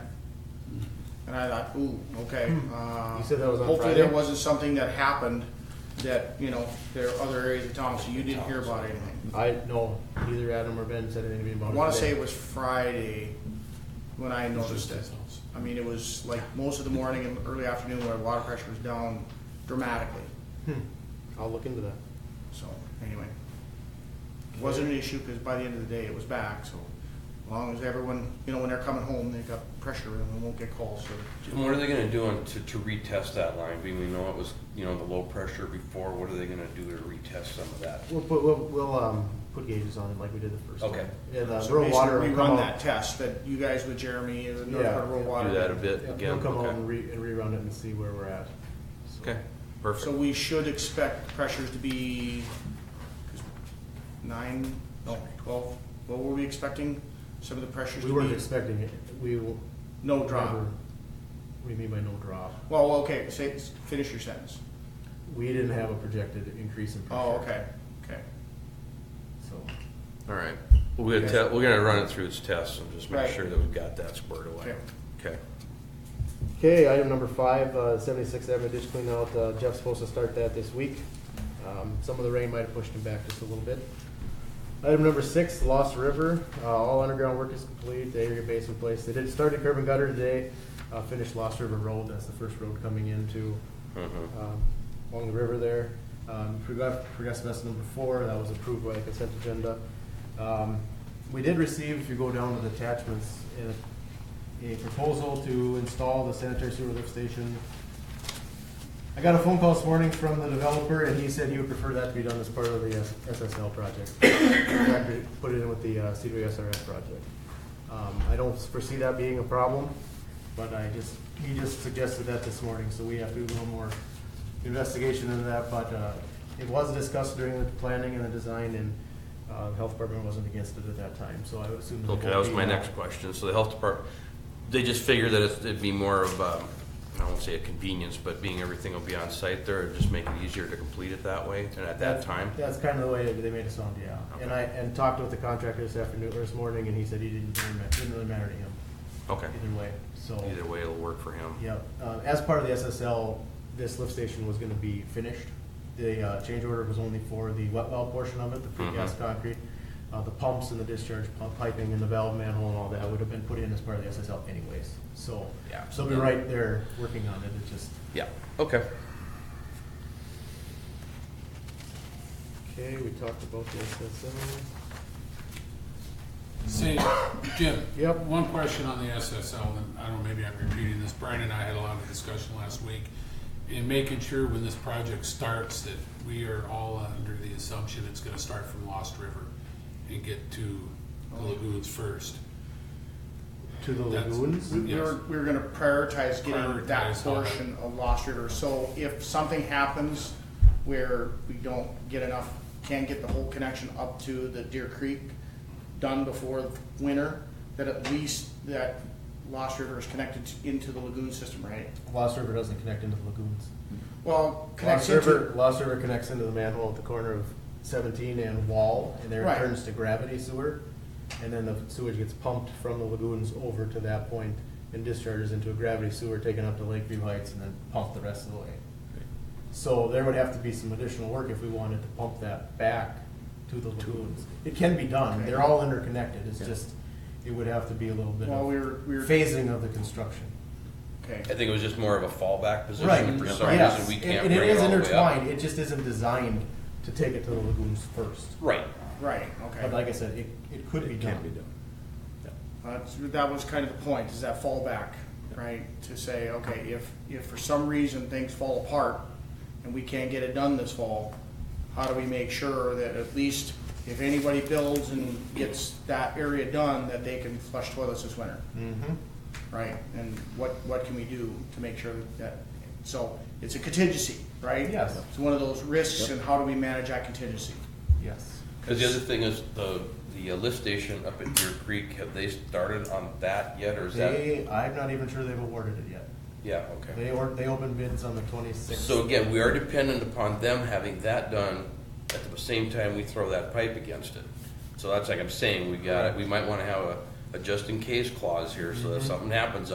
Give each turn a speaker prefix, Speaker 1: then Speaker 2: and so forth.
Speaker 1: And I thought, ooh, okay. uh,
Speaker 2: You said that was on
Speaker 1: Hopefully there
Speaker 2: Friday?
Speaker 1: wasn't something that happened that, you know, there are other areas of town, so you didn't hear about anything.
Speaker 2: I no, neither Adam or Ben said anything to me
Speaker 1: I
Speaker 2: about it.
Speaker 1: wanna say
Speaker 2: today.
Speaker 1: it was Friday when I noticed it. I mean, it was like most of the morning and early afternoon where water pressure was down dramatically,
Speaker 2: I'll look into that.
Speaker 1: so, anyway. Wasn't an issue, cause by the end of the day, it was back, so as long as everyone, you know, when they're coming home, they've got pressure and they won't get calls, so.
Speaker 3: And what are they gonna do on- to, to retest that line? I mean, we know it was, you know, the low pressure before, what are they gonna do to retest some of that?
Speaker 2: We'll put we'll, we'll um put gauges on it like we did the first.
Speaker 3: Okay.
Speaker 2: time. And uh,
Speaker 1: So
Speaker 2: rural water
Speaker 1: basically,
Speaker 2: will
Speaker 1: we
Speaker 2: come
Speaker 1: run
Speaker 2: out-
Speaker 1: that test that you guys with Jeremy and the North
Speaker 2: Yeah.
Speaker 1: Dakota Rural Water.
Speaker 3: Do that a bit
Speaker 2: Yeah,
Speaker 3: again?
Speaker 2: We'll come out
Speaker 3: Okay.
Speaker 2: and, re, and rerun it and see where we're at. So,
Speaker 3: Okay,
Speaker 1: So
Speaker 3: perfect.
Speaker 1: we should expect pressures to be nine, no, twelve, what were we expecting? Some of the pressures
Speaker 2: We
Speaker 1: to
Speaker 2: weren't
Speaker 1: be,
Speaker 2: expecting it. We will
Speaker 1: no drop.
Speaker 2: never- What do you mean by no drop?
Speaker 1: Well, okay, say, finish your sentence.
Speaker 2: We didn't have a projected increase in pressure.
Speaker 1: Oh, okay, okay.
Speaker 2: So
Speaker 3: All right. We're gonna te- we're gonna run it through its tests and just make
Speaker 1: Right.
Speaker 3: sure that we've got that squared away. Okay.
Speaker 2: Okay, item number five, uh, 76th Avenue ditch clean out, uh, Jeff's supposed to start that this week. Um, some of the rain might have pushed him back just a little bit. Item number six, Lost River, uh, all underground work is complete, the area base in place. They did start at curb and gutter today, uh, finished Lost River Road, that's the first road coming into,
Speaker 3: Mhm.
Speaker 2: um, along the river there. Um, Progress progressive estimate number four, that was approved by the consent agenda. Um, We did receive, if you go down to the attachments, a, a proposal to install the sanitary sewer lift station. I got a phone call this morning from the developer, and he said he would prefer that to be done as part of the S- SSL project. In fact, we Put it in with the uh, CWSRF project. Um, I don't foresee that being a problem, but I just, he just suggested that this morning, so we have to do a little more investigation into that, but uh, it was discussed during the planning and the design, and uh, the health department wasn't against it at that time, so I would assume.
Speaker 3: Okay, that was
Speaker 2: uh,
Speaker 3: my next question. So the health department, they just figure that it's- it'd be more of, um, I won't say a convenience, but being everything will be on site there, it'd just make it easier to complete it that way and at that time?
Speaker 2: That's kind of the way they made it sound, yeah. And I, and talked with the contractor this afternoon, or this morning, and he said he didn't, really ma- didn't really matter to him
Speaker 3: Okay.
Speaker 2: either way, so.
Speaker 3: Either way, it'll work for him.
Speaker 2: Yep, uh, as part of the SSL, this lift station was gonna be finished. The, uh, change order was only for the wet well portion of it, the precast
Speaker 3: Mhm.
Speaker 2: concrete. Uh, the pumps and the discharge pump piping and the valve manhole and all that would have been put in as part of the SSL anyways, so.
Speaker 3: Yeah.
Speaker 2: So we're right there working on it, it just.
Speaker 3: Yeah, okay.
Speaker 2: Okay, we talked about the SSL.
Speaker 4: Say, Jim.
Speaker 2: Yep.
Speaker 4: One question on the SSL, and I don't know, maybe I'm repeating this. Brian and I had a lot of discussion last week in making sure when this project starts that we are all under the assumption it's gonna start from Lost River and get to the lagoons first.
Speaker 2: To the
Speaker 4: That's-
Speaker 2: lagoons?
Speaker 1: We we were, we were gonna prioritize getting that
Speaker 4: Prioritize all that.
Speaker 1: portion of Lost River, so if something happens where we don't get enough, can't get the whole connection up to the Deer Creek done before winter, that at least that Lost River is connected to- into the lagoon system, right?
Speaker 2: Lost River doesn't connect into the lagoons.
Speaker 1: Well, connects
Speaker 2: Lost
Speaker 1: into,
Speaker 2: River, Lost River connects into the manhole at the corner of seventeen and Wall, and there it
Speaker 1: Right.
Speaker 2: turns to gravity sewer. And then the sewage gets pumped from the lagoons over to that point and discharges into a gravity sewer taken up to Lakeview Heights and then pumped the rest of the way. So there would have to be some additional work if we wanted to pump that back to the lagoons. It can be done, they're all interconnected, it's just, it would have to be a little bit
Speaker 1: well, we
Speaker 2: of
Speaker 1: were, we were,
Speaker 2: phasing of the construction.
Speaker 1: okay.
Speaker 3: I think it was just more of a fallback position.
Speaker 2: Right,
Speaker 3: For some
Speaker 2: yes.
Speaker 3: reason, we
Speaker 2: And-
Speaker 3: can't
Speaker 2: and
Speaker 3: bring it all the
Speaker 2: is
Speaker 3: way up.
Speaker 2: intertwined, it just isn't designed to take it to the lagoons first.
Speaker 3: Right.
Speaker 1: Right,
Speaker 2: But
Speaker 1: okay.
Speaker 2: like I said, it, it could be done.
Speaker 1: That's- That was kind of the point, is that fallback, right? To say, okay, if, if for some reason things fall apart and we can't get it done this fall, how do we make sure that at least if anybody builds and gets that area done, that they can flush toilets this winter?
Speaker 2: Mm-hmm.
Speaker 1: right? And what, what can we do to make sure that, so it's a contingency, right?
Speaker 2: Yes.
Speaker 1: It's one of those risks and how do we manage that contingency?
Speaker 2: Yes.
Speaker 3: Because the other thing is the, the uh, lift station up at Deer Creek, have they started on that yet or is that?
Speaker 2: They, I'm not even sure they've awarded it yet.
Speaker 3: Yeah, okay.
Speaker 2: They or, they opened bids on the twenty-sixth.
Speaker 3: So again, we are dependent upon them having that done at the same time we throw that pipe against it.
Speaker 2: Mm-hmm.
Speaker 3: So that's like I'm saying, we got, we might want to have a, a just in case clause here so that if something happens